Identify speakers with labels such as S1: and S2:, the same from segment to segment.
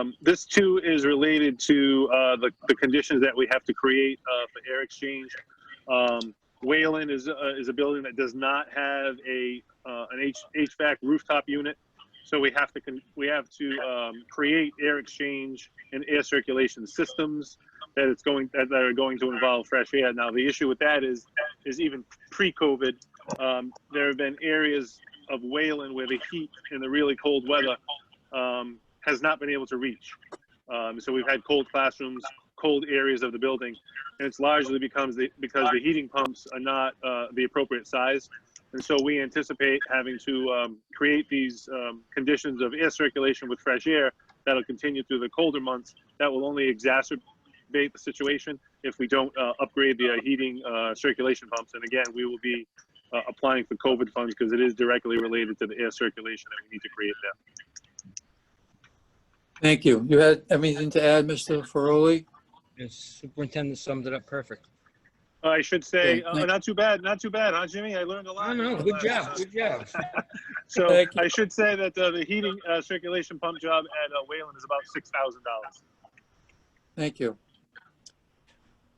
S1: Um, This too is related to uh, the, the conditions that we have to create uh, for air exchange. Um, Wayland is, uh, is a building that does not have a, uh, an H- HVAC rooftop unit. So we have to, con- we have to um, create air exchange and air circulation systems that it's going, that that are going to involve fresh air. Now, the issue with that is, is even pre-COVID, um, there have been areas of Wayland where the heat and the really cold weather um, has not been able to reach. Um, so we've had cold classrooms, cold areas of the building, and it's largely becomes the, because the heating pumps are not uh, the appropriate size. And so we anticipate having to um, create these um, conditions of air circulation with fresh air that'll continue through the colder months. That will only exacerbate the situation if we don't uh, upgrade the uh, heating uh, circulation pumps. And again, we will be uh, applying for COVID funds because it is directly related to the air circulation that we need to create there.
S2: Thank you. You had anything to add, Mr. Feroli?
S3: The superintendent summed it up perfect.
S1: I should say,
S2: Yeah,
S1: uh,
S2: thank-
S1: not too bad, not too bad, huh, Jimmy? I learned a
S3: No,
S1: lot. Uh,
S3: no, good job, good job.
S1: So
S2: Thank you.
S1: I should say that uh, the heating uh, circulation pump job at uh, Wayland is about six thousand dollars.
S2: Thank you.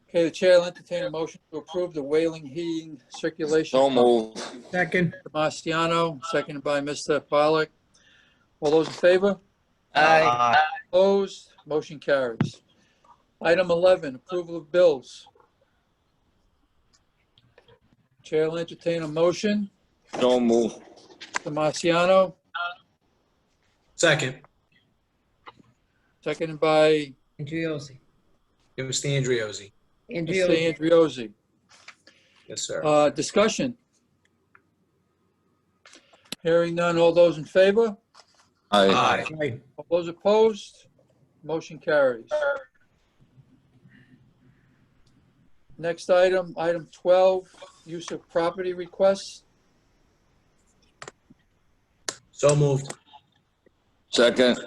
S2: Okay, the chair will entertain a motion to approve the Whaling Heating Circulation.
S4: So moved.
S5: Second,
S2: Marciano, seconded by Mr. Pollak. All those in favor?
S4: Aye.
S2: Opposed? Motion carries. Item 11, approval of bills. Chair will entertain a motion.
S4: So moved.
S2: Mr. Marciano,
S5: second.
S2: seconded by
S6: Andriozzi.
S5: It was the Andriozzi.
S6: Andriozzi.
S2: Mr. Andriozzi.
S5: Yes, sir.
S2: Uh, Discussion. Hearing none. All those in favor?
S4: Aye.
S5: Aye. Aye.
S2: All those opposed? Motion carries. Next item, item 12, use of property requests.
S5: So moved.
S4: Second.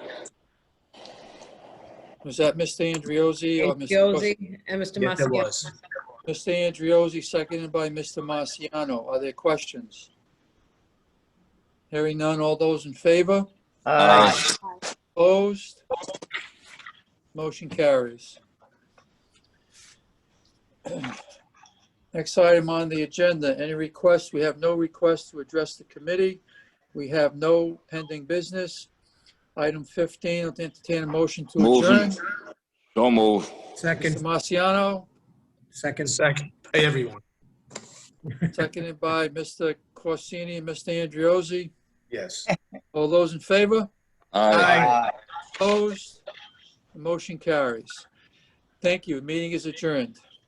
S2: Was that Mr. Andriozzi or Mr. Cos-
S6: Andriozzi and Mr.
S5: Yes, it
S6: Masiano.
S5: was.
S2: Mr. Andriozzi, seconded by Mr. Marciano? Are there questions? Hearing none. All those in favor?
S4: Aye.
S2: Opposed? Motion carries. Next item on the agenda, any requests? We have no requests to address the committee. We have no pending business. Item 15, I'll entertain a motion to
S4: Move.
S2: adjourn.
S4: So moved.
S2: Mr.
S5: Second,
S2: Marciano,
S5: second. Second. Hey, everyone.
S2: seconded by Mr. Corsini and Mr. Andriozzi.
S5: Yes.
S2: All those in favor?
S4: Aye.
S2: Opposed? Motion carries. Thank you. Meeting is adjourned.